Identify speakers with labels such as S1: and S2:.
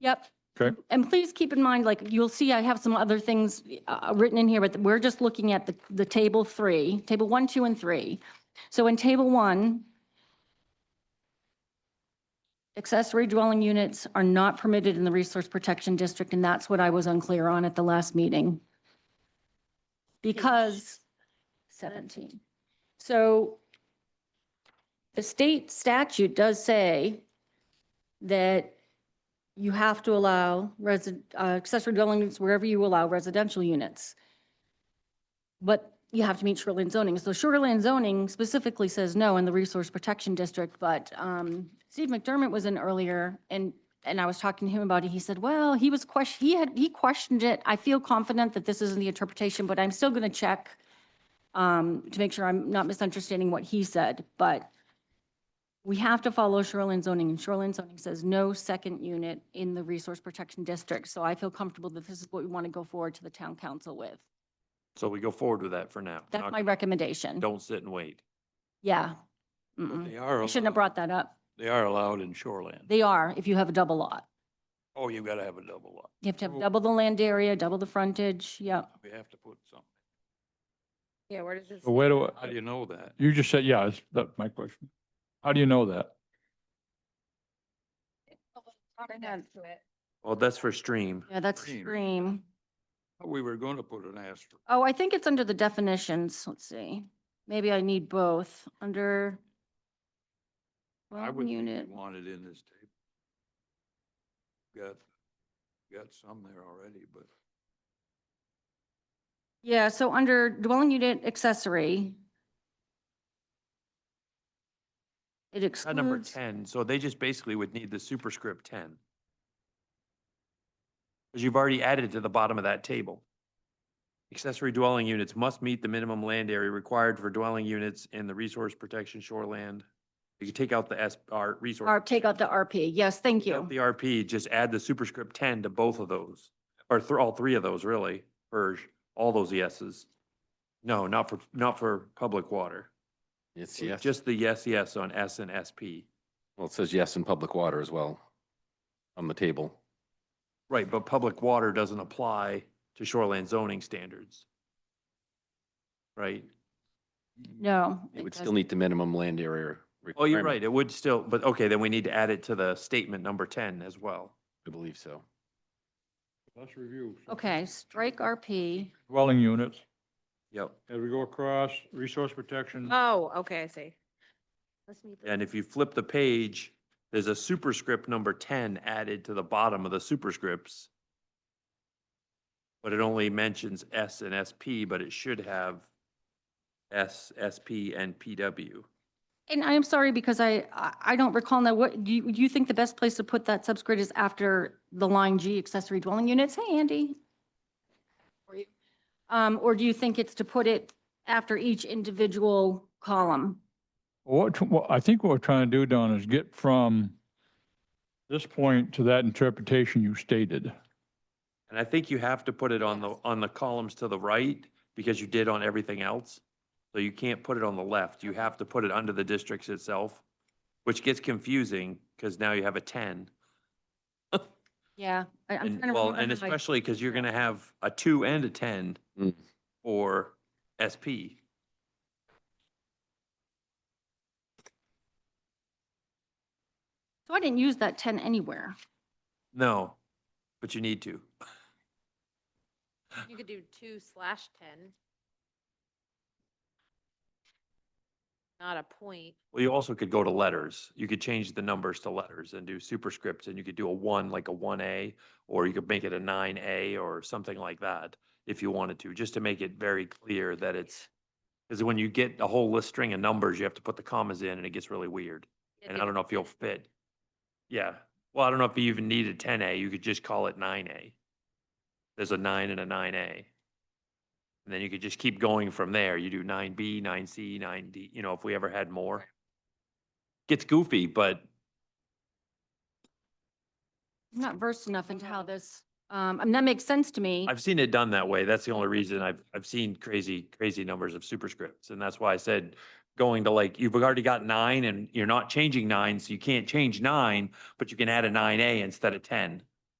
S1: Yep.
S2: Okay.
S1: And please keep in mind, like, you'll see I have some other things uh, written in here, but we're just looking at the, the table three, table one, two, and three. So in table one, accessory dwelling units are not permitted in the resource protection district, and that's what I was unclear on at the last meeting. Because 17. So the state statute does say that you have to allow resi- uh, accessory dwelling units wherever you allow residential units. But you have to meet shoreline zoning. So shoreline zoning specifically says no in the resource protection district, but um, Steve McDermott was in earlier and, and I was talking to him about it. He said, well, he was question, he had, he questioned it. I feel confident that this isn't the interpretation, but I'm still going to check um, to make sure I'm not misunderstanding what he said, but we have to follow shoreline zoning, and shoreline zoning says no second unit in the resource protection district. So I feel comfortable that this is what we want to go forward to the town council with.
S3: So we go forward with that for now.
S1: That's
S3: Not-
S1: my recommendation.
S3: Don't sit and wait.
S1: Yeah. Mm-mm.
S3: They are.
S1: I shouldn't have
S3: allowed-
S1: brought that up.
S3: They are allowed in shoreland.
S1: They are, if you have a double lot.
S3: Oh, you gotta have a double lot.
S1: You have to have
S3: Oh.
S1: double the land area, double the frontage, yeah.
S3: We have to put something.
S4: Yeah, where does this?
S2: So Where do,
S3: How do
S2: I-
S3: you know that?
S2: you just said, yeah, that's, that's my question. How do you know that?
S4: Right next to it.
S3: Well, that's for stream.
S1: Yeah, that's
S3: Stream.
S1: stream.
S3: We were gonna put an asterisk.
S1: Oh, I think it's under the definitions. Let's see. Maybe I need both under
S3: I
S1: dwelling
S3: would think
S1: unit.
S3: we wanted in this table. Got, got some there already, but
S1: Yeah, so under dwelling unit accessory, it
S3: Uh, number
S1: excludes,
S3: ten, so they just basically would need the superscript ten. Cause you've already added to the bottom of that table. Accessory dwelling units must meet the minimum land area required for dwelling units in the resource protection shoreland. You could take out the S, our resource.
S1: or take out the RP. Yes, thank
S3: take out
S1: you.
S3: The RP, just add the superscript ten to both of those, or through all three of those, really, or all those yeses. No, not for, not for public water.
S5: It's yes.
S3: Just the yes, yes on S and SP.
S5: Well, it says yes in public water as well on the table.
S3: Right, but public water doesn't apply to shoreline zoning standards. Right?
S1: No.
S5: It would still
S1: doesn't.
S5: need the minimum land area.
S3: Oh, you're
S5: requirement,
S3: right, it would still, but okay, then we need to add it to the statement number ten as well.
S5: I believe so.
S2: Let's review.
S1: Okay, strike RP.
S2: Dwelling units,
S3: Yep.
S2: as we go across, resource protection.
S4: Oh, okay, I see.
S3: And if you flip the page, there's a superscript number ten added to the bottom of the superscripts. But it only mentions S and SP, but it should have S, SP, and PW.
S1: And I am sorry because I, I- I don't recall now, what, do you, do you think the best place to put that subscript is after the line G accessory dwelling units? Hey, Andy. Or you- Um, or do you think it's to put it after each individual column?
S2: What, what I think what we're trying to do, Don, is get from this point to that interpretation you stated.
S3: And I think you have to put it on the,
S1: Yes.
S3: on the columns to the right because you did on everything else. So you can't put it on the left. You have to put it under the districts itself, which gets confusing because now you have a ten.
S1: Yeah. I- I'm
S3: And
S1: trying to
S3: well,
S1: remember.
S3: and
S1: how I-
S3: especially because you're gonna have a two and a ten
S5: Mm.
S3: for SP.
S1: So I didn't use that 10 anywhere.
S3: No, but you need to.
S4: You could do two slash ten. Not a point.
S3: Well, you also could go to letters. You could change the numbers to letters and do superscripts and you could do a one, like a one A, or you could make it a nine A or something like that if you wanted to, just to make it very clear that it's, because when you get a whole list string of numbers, you have to put the commas in and it gets really weird.
S4: You
S3: And
S4: do
S3: I don't know if you'll fit. Yeah, well, I don't know if you even need a ten A, you could just call it nine A. There's a nine and a nine A. And then you could just keep going from there, you do nine B, nine C, nine D, you know, if we ever had more. Gets goofy, but
S1: I'm not versed enough into how this, um, and that makes sense to me.
S3: I've seen it done that way, that's the only reason I've, I've seen crazy, crazy numbers of superscripts, and that's why I said going to like, you've already got nine and you're not changing nine, so you can't change nine, but you can add a nine A instead of ten.